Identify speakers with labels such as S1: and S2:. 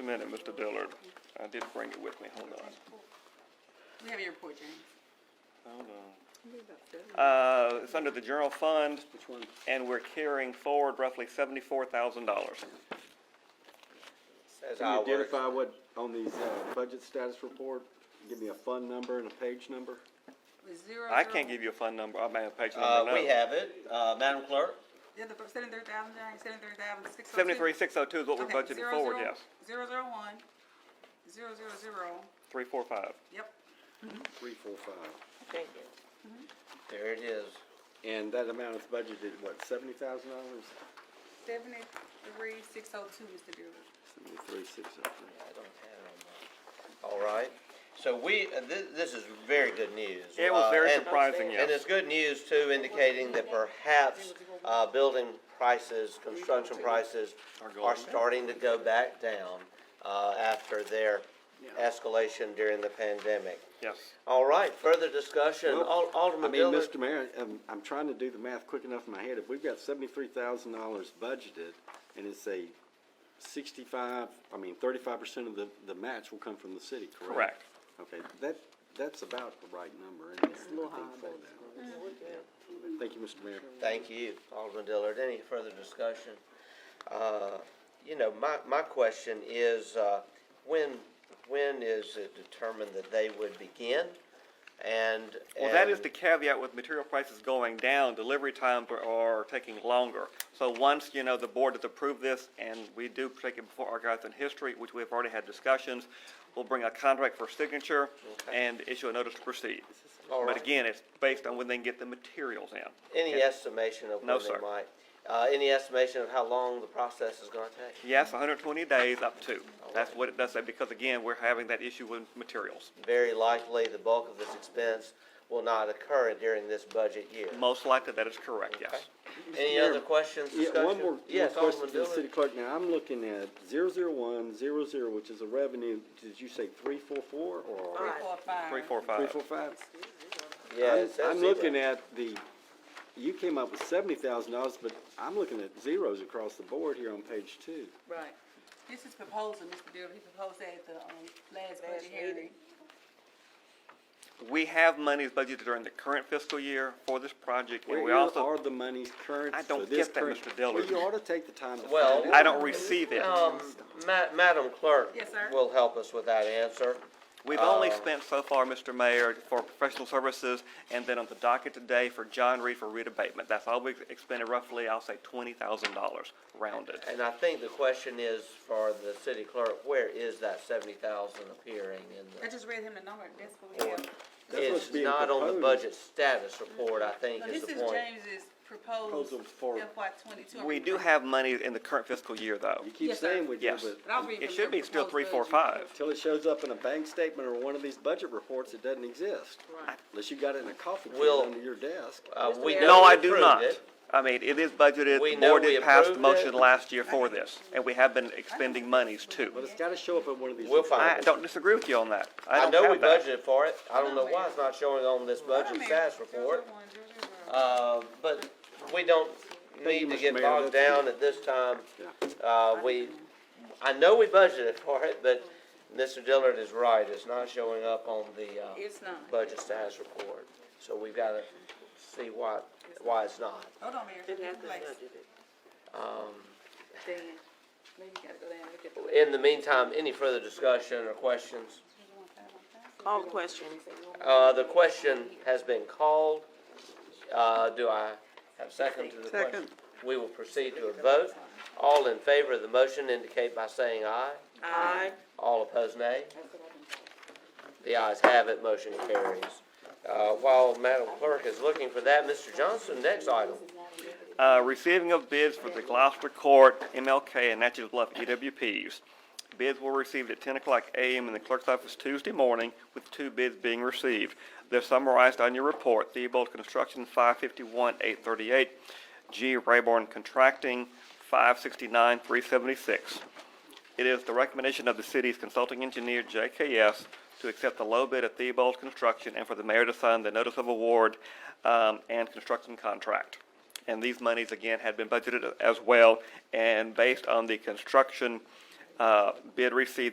S1: a minute, Mr. Dillard. I did bring it with me. Hold on.
S2: We have your report, James.
S1: Hold on. Uh, it's under the general fund. And we're carrying forward roughly seventy-four thousand dollars.
S3: As
S4: Can
S3: I
S4: you
S3: work.
S4: identify what, on these, uh, budget status report, give me a fund number and a page number?
S2: With zero.
S1: I can't give you a fund number, I mean, a page
S3: Uh,
S1: number,
S3: we
S1: no.
S3: have it, uh, Madam Clerk,
S2: Yeah, the seventy-three thousand, James, seventy-three thousand, six oh two.
S1: Seventy-three, six oh two is what we budgeted forward, yes.
S2: Zero, zero, one, zero, zero, zero,
S1: Three, four, five.
S2: yep.
S4: Three, four, five.
S3: there it is.
S4: And that amount is budgeted, what, seventy thousand dollars?
S2: Seventy-three, six oh two, Mr. Dillard.
S4: Seventy-three, six oh
S3: I
S4: three.
S3: don't have it on my. All right, so we, uh, thi- this is very good news.
S1: It was
S3: Uh,
S1: very
S3: and-
S1: surprising,
S3: And
S1: yes.
S3: it's good news too, indicating that perhaps, uh, building prices, construction prices are starting to go back down, uh, after their escalation during the pandemic.
S1: Yes.
S3: All right, further discussion, Al-
S4: I
S3: Alderman
S4: mean,
S3: Dillard.
S4: Mr. Mayor, I'm, I'm trying to do the math quick enough in my head. If we've got seventy-three thousand dollars budgeted and it's a sixty-five, I mean, thirty-five percent of the, the match will come from the city, correct?
S1: Correct.
S4: Okay, that, that's about the right number in there, I think, for that.
S3: Mm-hmm.
S4: Thank you, Mr. Mayor.
S3: Thank you, Alderman Dillard. Any further discussion? Uh, You know, my, my question is, uh, when, when is it determined that they would begin? And.
S1: Well, that
S3: and-
S1: is the caveat with material prices going down, delivery times are- are taking longer. So once, you know, the board has approved this, and we do take it before archives and history, which we've already had discussions, we'll bring a contract for signature and issue a notice to proceed.
S3: All
S1: But
S3: right.
S1: again, it's based on when they can get the materials in.
S3: Any estimation of
S1: No,
S3: when they
S1: sir.
S3: might? uh, Any estimation of how long the process is gonna take?
S1: Yes, hundred and twenty days up to. That's what it does say, because again, we're having that issue with materials.
S3: Very likely, the bulk of this expense will not occur during this budget year.
S1: Most likely, that is correct, yes.
S3: Any
S4: Mayor,
S3: other questions, discussion?
S4: Yeah, one more, one
S3: Yes,
S4: question to
S3: Alderman
S4: the
S3: Dillard.
S4: city clerk. Now, I'm looking at zero zero one, zero zero, which is a revenue, did you say three four four
S2: Three,
S4: or?
S2: four, five.
S1: Three, four,
S4: Three
S1: five.
S4: four five?
S3: Yeah, it says
S4: I'm
S3: zero.
S4: looking at the, you came up with seventy thousand dollars, but I'm looking at zeros across the board here on page two.
S2: Right. This is proposal, Mr. Dillard, he proposed that at the, um, last budget hearing.
S1: We have monies budgeted during the current fiscal year for this project, and we
S4: Where are
S1: also,
S4: the monies current
S1: I don't
S4: for this
S1: get that,
S4: current?
S1: Mr. Dillard.
S4: Well, you ought to take the time to
S3: Well-
S4: find out.
S1: I don't receive it.
S3: Um, Ma- Madam Clerk.
S2: Yes, sir.
S3: Will help us with that answer.
S1: We've only
S3: Uh,
S1: spent so far, Mr. Mayor, for professional services, and then on the docket today for John Reed for reed abatement. That's all we've expended roughly, I'll say twenty thousand dollars rounded.
S3: And I think the question is for the city clerk, where is that seventy thousand appearing in
S2: I
S3: the?
S2: just read him the number, that's what we have.
S4: That's what's
S3: It's
S4: being
S3: not on the
S4: proposed.
S3: budget status report, I think
S2: No,
S3: is
S2: this
S3: the
S2: is
S3: point.
S2: James's proposed
S4: Proposal for-
S2: FY twenty-two.
S1: We do have money in the current fiscal year, though.
S4: You keep
S2: Yes, sir.
S4: saying we do,
S1: Yes.
S4: but
S2: But I'll read
S1: It
S2: from
S1: should
S2: the
S1: be still
S2: proposed
S1: three, four,
S2: budget.
S1: five.
S4: until it shows up in a bank statement or one of these budget reports, it doesn't exist.
S2: Right.
S4: Unless you got it in a coffee can
S3: Will-
S4: under your desk.
S3: Uh, we
S2: Mr.
S3: know
S1: No,
S3: we
S1: I do
S3: approved
S1: not.
S3: it.
S1: I mean, it is budgeted,
S3: We
S1: the
S3: know
S1: board
S3: we
S1: did pass the
S3: approved it.
S1: motion last year for this, and we have been expending monies too.
S4: But it's gotta show up at one of these.
S3: We'll find
S1: I
S3: it.
S1: don't disagree with you on that. I
S3: I
S1: don't
S3: know
S1: have
S3: we
S1: that.
S3: budgeted for it. I don't know why it's not showing on this budget status report. Uh, but we don't
S4: Thank you,
S3: need to
S4: Mr.
S3: get
S4: Mayor.
S3: bogged
S4: That's
S3: down at this time.
S4: Yeah.
S3: Uh, we, I know we budgeted for it, but Mr. Dillard is right, it's not showing up on the, uh,
S2: It's not.
S3: budget status report. So we've gotta see why, why it's not.
S2: Hold on, Mayor. Didn't have to.
S3: Um,
S2: Dan, maybe you gotta go down and look at the.
S3: in the meantime, any further discussion or questions?
S5: All questions.
S3: Uh, the question has been called. Uh, do I have a second to the question?
S5: Second.
S3: We will proceed to a vote. All in favor of the motion indicate by saying aye.
S5: Aye.
S3: All opposed, nay? The ayes have it, motion carries. Uh, while Madam Clerk is looking for that, Mr. Johnson, next item.
S1: Uh, receiving of bids for the Gloucester Court, MLK, and Natchez Bluff EWPs. Bids were received at ten o'clock AM in the clerk's office Tuesday morning, with two bids being received. They're summarized on your report, Theobald Construction, five fifty-one, eight thirty-eight, G. Rayborn Contracting, five sixty-nine, three seventy-six. It is the recommendation of the city's consulting engineer, JKS, to accept the low bid of Theobald Construction and for the mayor to sign the notice of award um, and construction contract. And these monies, again, had been budgeted as well, and based on the construction Uh, Bid received